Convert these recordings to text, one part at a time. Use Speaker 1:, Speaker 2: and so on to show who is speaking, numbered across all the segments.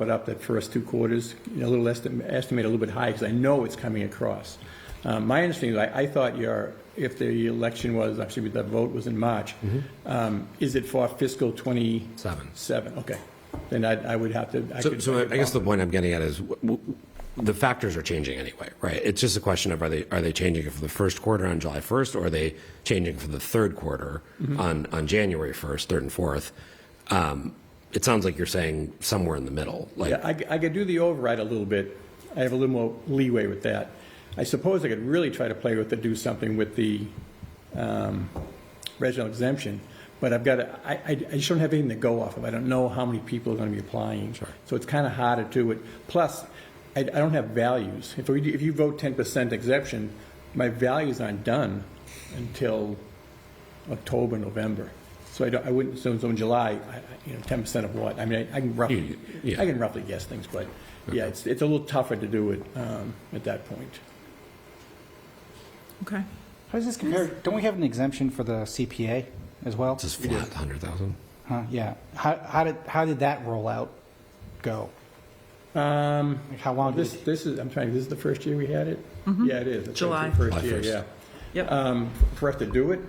Speaker 1: but up that first two quarters, you know, a little estimate, estimate a little bit high, because I know it's coming across. Um, My understanding is, I, I thought your, if the election was, actually, the vote was in March,
Speaker 2: Mm-hmm.
Speaker 1: um, is it for fiscal 27? Seven, okay. Then I, I would have to, I
Speaker 2: So,
Speaker 1: could.
Speaker 2: so I
Speaker 1: could
Speaker 2: I guess the
Speaker 1: bump
Speaker 2: point I'm getting at is, w- w- the factors are changing anyway, right? It's just a question of are they, are they changing it for the first quarter on July 1st, or are they changing for the third quarter
Speaker 1: Mm-hmm.
Speaker 2: on, on January 1st, 3rd and 4th? Um, It sounds like you're saying somewhere in the middle,
Speaker 1: it.
Speaker 2: like,
Speaker 1: Yeah, I, c- I could do the override a little bit. I have a little more leeway with that. I suppose I could really try to play with, to do something with the um, regional exemption, but I've got, to- I, I I just don't have anything to go off of. I don't know how many people are going to be applying. So it's kind of harder to do it. Plus, I, I don't have values. If we, do- if you vote 10% exemption, my values aren't done until October, November. So I don't, I wouldn't, so so in July, I- I- you know, 10% of what? I mean, I I can roughly,
Speaker 2: You- yeah.
Speaker 1: I can roughly guess things, but yeah, it's, it's a little tougher to do it um, at that point.
Speaker 3: Okay.
Speaker 4: How does this compare? Don't we have an exemption for the CPA as well?
Speaker 2: it's just flat, 100,000?
Speaker 4: Huh, yeah. How, how did, how did that rollout go?
Speaker 1: Um,
Speaker 4: Like, How long did
Speaker 1: This,
Speaker 4: it?
Speaker 1: this is, I'm trying, this is the first year we had it?
Speaker 4: Mm-hmm.
Speaker 1: Yeah, it is. I think it's the
Speaker 3: July.
Speaker 1: First
Speaker 2: July
Speaker 1: year,
Speaker 2: first.
Speaker 1: yeah.
Speaker 3: Yep.
Speaker 1: Um, For us to do it?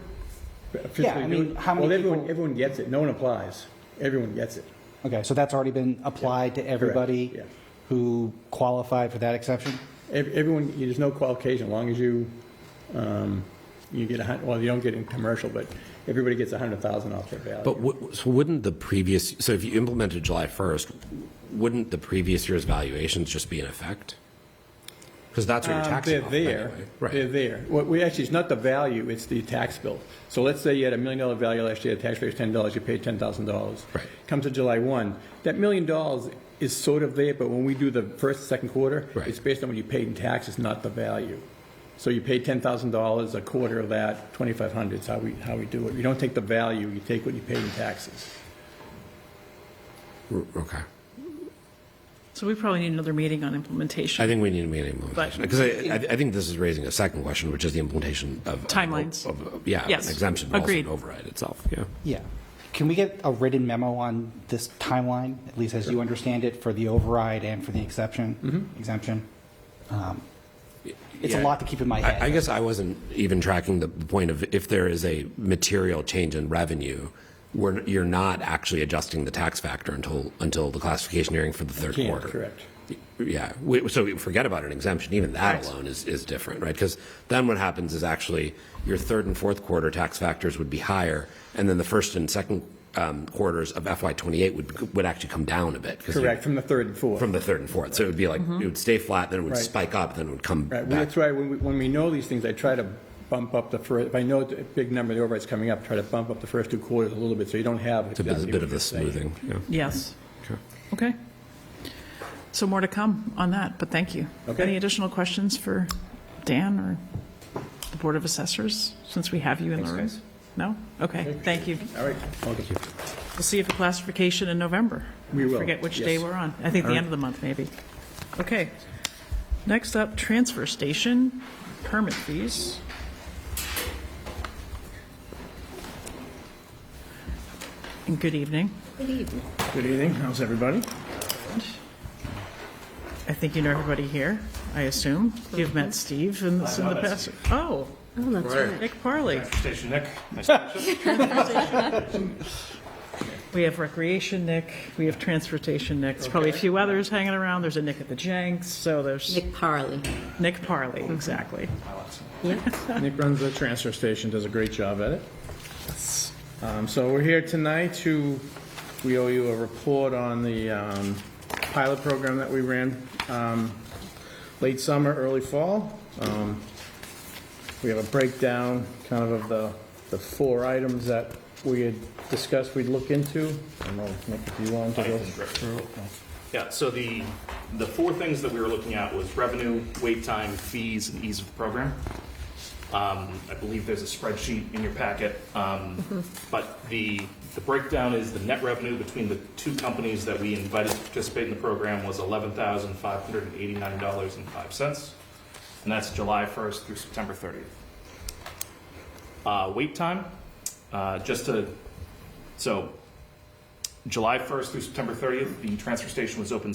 Speaker 1: physically
Speaker 4: Yeah, I
Speaker 1: do
Speaker 4: mean,
Speaker 1: it?
Speaker 4: how many
Speaker 1: Well, everyone,
Speaker 4: people-
Speaker 1: everyone gets it, no one applies, everyone gets it.
Speaker 4: Okay, so that's already been applied to everybody
Speaker 1: yeah.
Speaker 4: who qualified for that exception?
Speaker 1: Ev- Everyone, there's no qualification, as long as you, um, you get a hun, well, you don't get in commercial, but everybody gets a hundred thousand off their value.
Speaker 2: But wou- so wouldn't the previous, so if you implemented July 1st, wouldn't the previous year's valuations just be in effect? Because that's what you're
Speaker 1: Um,
Speaker 2: taxing off of
Speaker 1: They're
Speaker 2: anyway.
Speaker 1: there,
Speaker 2: Right.
Speaker 1: they're there. What we, actually, it's not the value, it's the tax bill. So let's say you had a million dollar value last year, the tax rate was ten dollars, you paid ten thousand dollars.
Speaker 2: Right.
Speaker 1: Comes to July one, that million dollars is sort of there, but when we do the first, second quarter,
Speaker 2: Right.
Speaker 1: it's based on what you paid in taxes, not the value. So you pay ten thousand dollars, a quarter of that, twenty-five hundred is how we, how we do it. You don't take the value, you take what you paid in taxes.
Speaker 2: R- Okay.
Speaker 3: So we probably need another meeting on implementation.
Speaker 2: I think we need to make an implementation, because I, I I think this is raising a second question, which is the implementation of.
Speaker 3: Timelines.
Speaker 2: of- of- Yeah, of an
Speaker 3: Yes.
Speaker 2: exemption, but also an
Speaker 3: Agreed.
Speaker 2: override itself, yeah.
Speaker 4: Yeah. Can we get a written memo on this timeline, at least as you understand it, for the override and for the exception, exemption? Um, It's a
Speaker 2: Mm-hmm. Yeah.
Speaker 4: lot to keep in
Speaker 2: I,
Speaker 4: my
Speaker 2: I
Speaker 4: head.
Speaker 2: guess I wasn't even tracking the the point of if there is a material change in revenue, we're, you're not actually adjusting the tax factor until, until the classification hearing for the third
Speaker 1: Can't,
Speaker 2: quarter.
Speaker 1: Correct.
Speaker 2: Yeah, we- so we forget about an exemption, even that alone is, is different, right? Because then what happens is actually your third and fourth quarter tax factors would be higher, and then the first and second um, quarters of FY '28 would, would actually come down a bit. 'cause you-
Speaker 1: Correct, from the third and fourth.
Speaker 2: From the third and fourth, so it would be like, it would stay flat, then it would
Speaker 1: Right.
Speaker 2: spike up, then it would come
Speaker 1: Right,
Speaker 2: back.
Speaker 1: well, that's why, when we, when we know these things, I try to bump up the first, if I know a big number, of the override's coming up, try to bump up the first two quarters a little bit, so you don't have.
Speaker 2: It's a bit- a bit of a smoothing, yeah.
Speaker 3: Yes.
Speaker 2: Okay.
Speaker 3: Okay. So more to come on that, but thank you.
Speaker 1: Okay.
Speaker 3: Any additional questions for Dan or the Board of Assessors, since we have you in the room? No? Okay, thank you.
Speaker 1: All right, okay.
Speaker 3: We'll see you for classification in November.
Speaker 1: We will,
Speaker 3: Forget which day
Speaker 1: yes.
Speaker 3: we're on. I think the end of the month, maybe. Okay. Next up, transfer station permit fees. And good evening.
Speaker 5: Good evening. How's everybody?
Speaker 3: I think you know everybody here, I assume. You've met Steve in this in the past. Oh, Nick Parley.
Speaker 5: Station Nick.
Speaker 3: We have recreation Nick, we have transportation Nick. There's probably a few others hanging around. There's a Nick at the Jenks, so there's
Speaker 6: Nick Parley.
Speaker 3: Nick Parley, exactly.
Speaker 5: Nick runs the transfer station, does a great job at it. Um, So we're here tonight to, we owe you a report on the um, pilot program that we ran um, late summer, early fall. Um, We have a breakdown kind of of the, the four items that we had discussed we'd look into. I don't know, Nick, if you wanted to go through. it.
Speaker 7: Yeah, so the, the four things that we were looking at was revenue, wait time, fees, and ease of the program. Um, I believe there's a spreadsheet in your packet, um, but the, the breakdown is the net revenue between the two companies that we invited to participate in the program was eleven thousand five hundred and eighty-nine dollars and five cents, and that's July first through September thirtieth. Uh, wait time, uh, just to, so July first through September thirtieth, the transfer station was open